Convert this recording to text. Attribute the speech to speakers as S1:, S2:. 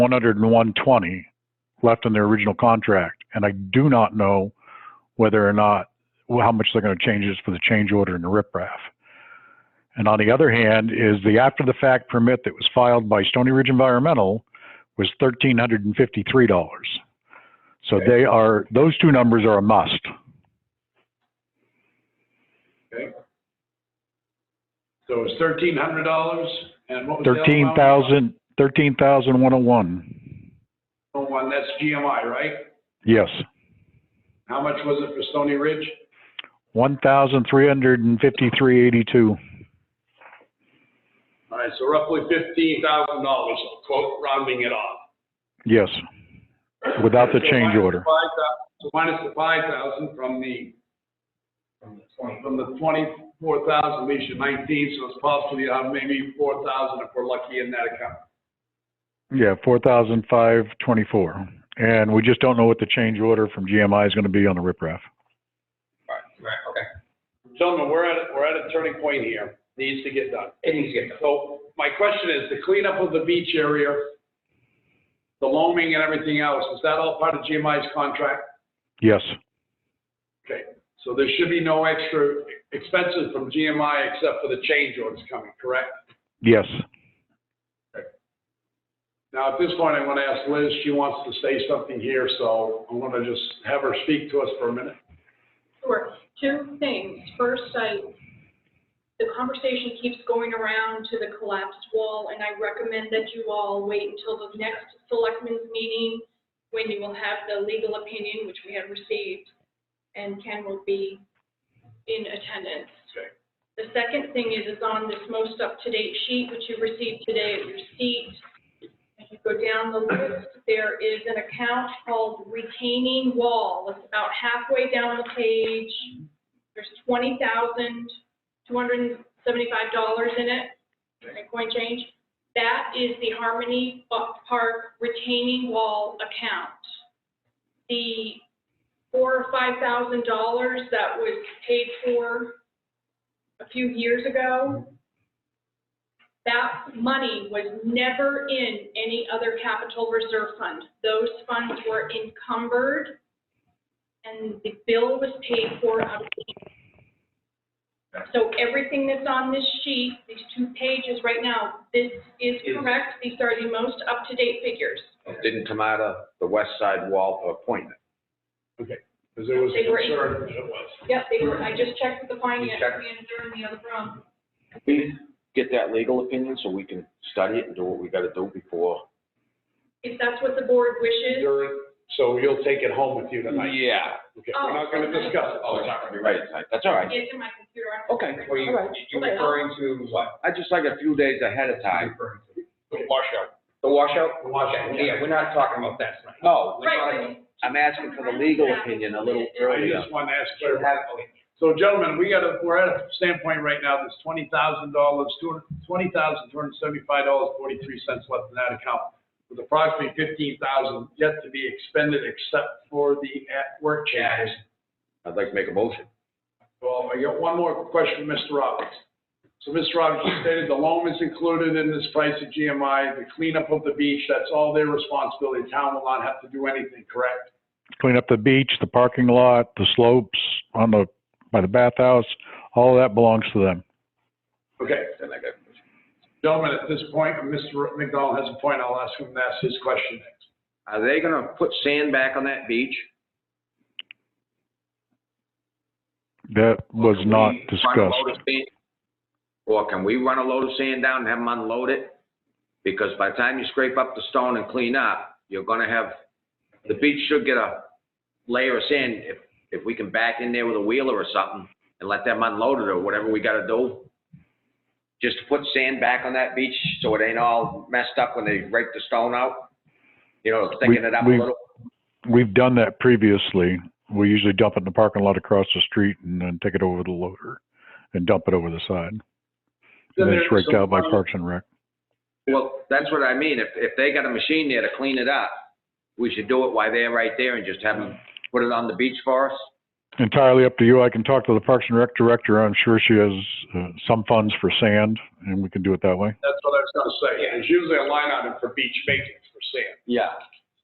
S1: one hundred and one twenty left in their original contract, and I do not know whether or not, well, how much they're gonna change this for the change order and the riprap. And on the other hand, is the after-the-fact permit that was filed by Stony Ridge Environmental was thirteen hundred and fifty-three dollars. So
S2: Okay.
S1: they are, those two numbers are a must.
S2: So it's thirteen hundred dollars and what was the other
S1: Thirteen
S2: amount?
S1: thousand, thirteen thousand one oh one.
S2: Oh, One, that's GMI, right?
S1: Yes,
S2: How much was it for Stony Ridge?
S1: one thousand three hundred and fifty-three eighty-two.
S2: All right, so roughly fifteen thousand dollars, quote, rounding it off.
S1: Yes, Without the
S2: So
S1: change
S2: minus
S1: order.
S2: the 5,000 So minus the five thousand from the, from the twenty-four thousand leaves you nineteen, so it's possibly, uh, maybe four thousand if we're lucky in that account.
S1: yeah, four thousand five twenty-four. And we just don't know what the change order from GMI is gonna be on the riprap.
S2: Right, right, okay. Gentlemen, we're at, we're at a turning point here. Needs to get done. It needs to get done. So my question is, the cleanup of the beach area, the loaming and everything else, is that all part of GMI's contract?
S1: Yes,
S2: Okay, so there should be no extra expenses from GMI except for the change orders coming, correct?
S1: yes.
S2: Now, at this point, I'm gonna ask Liz, she wants to say something here, so I'm gonna just have her speak to us for a minute.
S3: Sure. Two things. First, I, the conversation keeps going around to the collapsed wall, and I recommend that you all wait until the next selectmen's meeting when you will have the legal opinion, which we have received, and Ken will be in attendance.
S2: Okay.
S3: The second thing is, is on this most up-to-date sheet, which you received today at your seat. If you go down the list, there is an account called retaining wall. It's about halfway down the page. There's twenty thousand, two hundred and seventy-five dollars in it, in coin change. That is the Harmony Buck Park retaining wall account. The four or five thousand dollars that was paid for a few years ago, that money was never in any other capital reserve fund. Those funds were encumbered, and the bill was paid for out of the. So everything that's on this sheet, these two pages right now, this is correct, these are the most up-to-date figures.
S4: It didn't come out of the west side wall appointment.
S2: Because there was
S3: They were-
S2: concern that it was.
S3: Yep, they were, I just checked with the finance
S4: checked.
S3: manager in the other room.
S4: We get that legal opinion so we can study it and do what we gotta do before.
S3: If that's what the board wishes,
S2: During, so you'll take it home with you tonight.
S4: Yeah.
S2: Okay, we're not gonna discuss it.
S4: Oh, it's not gonna be right tonight. That's all right.
S3: it's in my computer. I'm-
S4: Okay.
S5: Were you, you
S3: Okay.
S5: referring to what?
S4: I just like a few days ahead of time.
S5: The washout. The washout?
S2: The washout, yeah.
S5: Yeah, we're not talking about that tonight.
S4: No, we-
S3: Right,
S4: I'm asking for the legal opinion a little
S2: I
S4: earlier.
S2: just want to ask
S5: We're
S2: clarity.
S5: having- okay.
S2: So gentlemen, we got a, we're at a standpoint right now, there's twenty thousand dollars, two hundred, twenty thousand, two hundred and seventy-five dollars, forty-three cents left in that account. With approximately fifteen thousand yet to be expended except for the at-work changes.
S4: I'd like to make a motion.
S2: Well, Um, I got one more question for Mr. Roberts. So Mr. Roberts, you stated the loan is included in this price of GMI, the cleanup of the beach, that's all their responsibility. Town will not have to do anything, correct?
S1: Clean up the beach, the parking lot, the slopes on the, by the bathhouse, all that belongs to them.
S2: Okay,
S4: Then I got.
S2: gentlemen, at this point, Mr. McDonald has a point, I'll ask him to ask his question next.
S4: Are they gonna put sand back on that beach?
S1: That was
S4: Can we
S1: not
S4: run a
S1: discussed.
S4: load of sand- Or can we run a load of sand down and have them unload it? Because by the time you scrape up the stone and clean up, you're gonna have, the beach should get a layer of sand if, if we can back in there with a wheeler or something and let them unload it or whatever we gotta do. Just to put sand back on that beach so it ain't all messed up when they rake the stone out. You know, thicken it up a
S1: we-
S4: little.
S1: We've done that previously. We usually dump it in the parking lot across the street and then take it over the loader and dump it over the side. And then it's raked out by Parks and Rec.
S4: Well, that's what I mean. If, if they got a machine there to clean it up, we should do it while they're right there and just have them put it on the beach for us.
S1: Entirely up to you. I can talk to the Parks and Rec director. I'm sure she has uh, some funds for sand and we can do it that way.
S2: That's what I was gonna say. There's usually a line item for beach maintenance, for
S6: sand.
S2: Yeah.